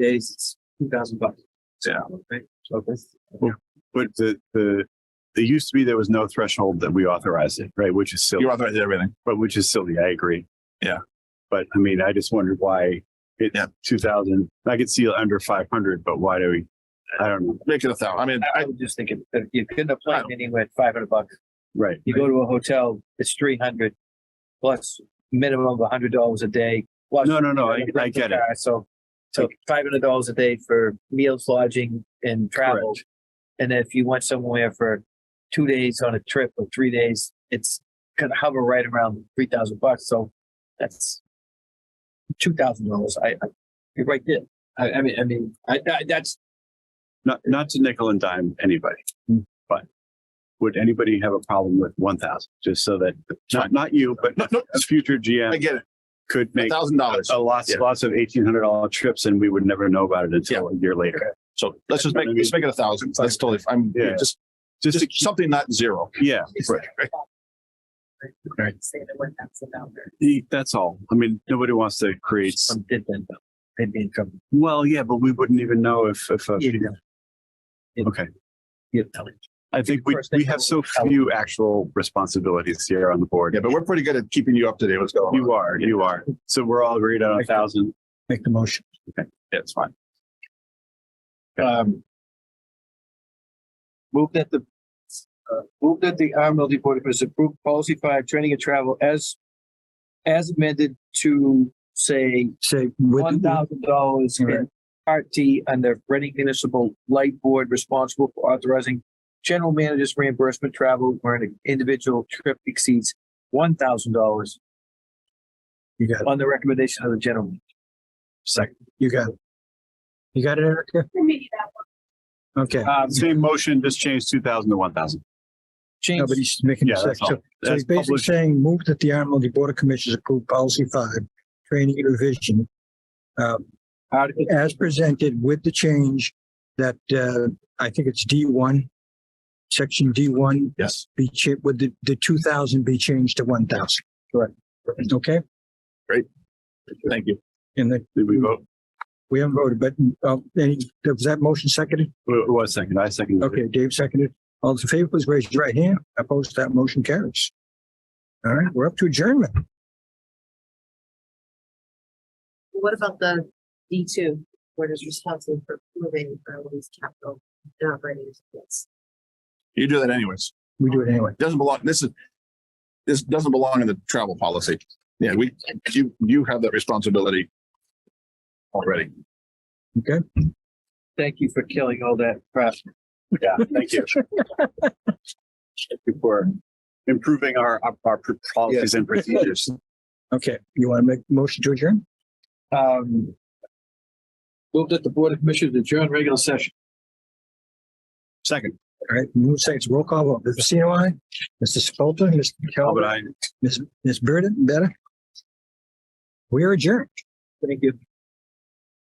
days, it's two thousand bucks. Yeah. Right? So that's- But the, the, it used to be there was no threshold that we authorized it, right? Which is silly, You authorized everything. but which is silly. I agree. Yeah. But I mean, I just wondered why it, Yeah. two thousand, I could see under five hundred, but why do we, I don't know. Make it a thousand. I mean, I I, was just thinking, if you couldn't apply anywhere at five hundred bucks, Right. you go to a hotel, it's three hundred plus minimum of hundred dollars a day. plus- No, no, no, Oh, I, I get it. So, so five hundred dollars a day for meals, lodging and travel. And if you went somewhere for two days on a trip or three days, it's gonna hover right around three thousand bucks. So that's two thousand dollars. I, I, you're right there. I, I mean, I mean, I, I, that's Not, not to nickel and dime anybody, Hmm. but would anybody have a problem with one thousand? Just so that, not, not you, but no, no, a future I GM get it. could A make Oh, thousand dollars. a lots, Yeah. lots of eighteen hundred dollar trips and we would never know about it until a year later. So let's just make, let's make it a thousand. That's totally, f- I'm Yeah. just, Just to just keep, something not zero. yeah, Right. Say that one thousand dollars. E- that's all. I mean, nobody wants to create, s- some did then. They'd be in trouble. well, yeah, but we wouldn't even know if, if, uh, a- You'd know. You'd- okay. you'd know. I think we, First thing we have so few actual responsibilities here on the board. Yeah, but we're pretty good at keeping you up to date. What's going on? You are, you are. So we're all agreed on a thousand. Make the motion. Yeah, it's fine. Um. Move that the, uh, move that the RMLD Board of Commissioners approve policy five, training and travel as, as amended to say say with one thousand dollars in Part D under Reading Municipal Light Board responsible for authorizing general manager's reimbursement travel where an individual trip exceeds one thousand dollars you got it. on the recommendation of the general. second. You got it. You got it, Erica? Okay. Um, Same motion, just change two thousand to one thousand. change, Nobody's making a Yeah, that's second. all. So- So That's he's basically published. saying move that the RMLD Board of Commissioners approve policy five, training and revision. Uh, Article as presented with the change that, uh, I think it's D one. Section D one Yes. be cha- with the, the two thousand be changed to one thousand. Correct. Okay, Thank you. and then Did we vote? we haven't voted, but, uh, any, was that motion seconded? Who who was second? I seconded. it. Okay, Dave seconded. All those in favor, please raise your right hand. Opposed, that motion carries. All right, we're up to adjournment. What about the D two, what is responsible for moving Berlin's capital and operating expense? You do that anyways. We do it anyway. Doesn't belong, this is, this doesn't belong in the travel policy. Yeah, we, you, you have that responsibility already. Thank you for killing all that crap. Yeah, thank you. Thank you For improving our, our pr- policies and procedures. Okay, you want to make a motion to adjourn? Um. Move that the Board of Commissioners adjourn regular session. Second, All right, move seconds, roll call vote. Mr. Pacino, aye. Mr. Spalter, Mr. but Talbot, I, Ms. Ms. Burden, better. We are adjourned. Thank you.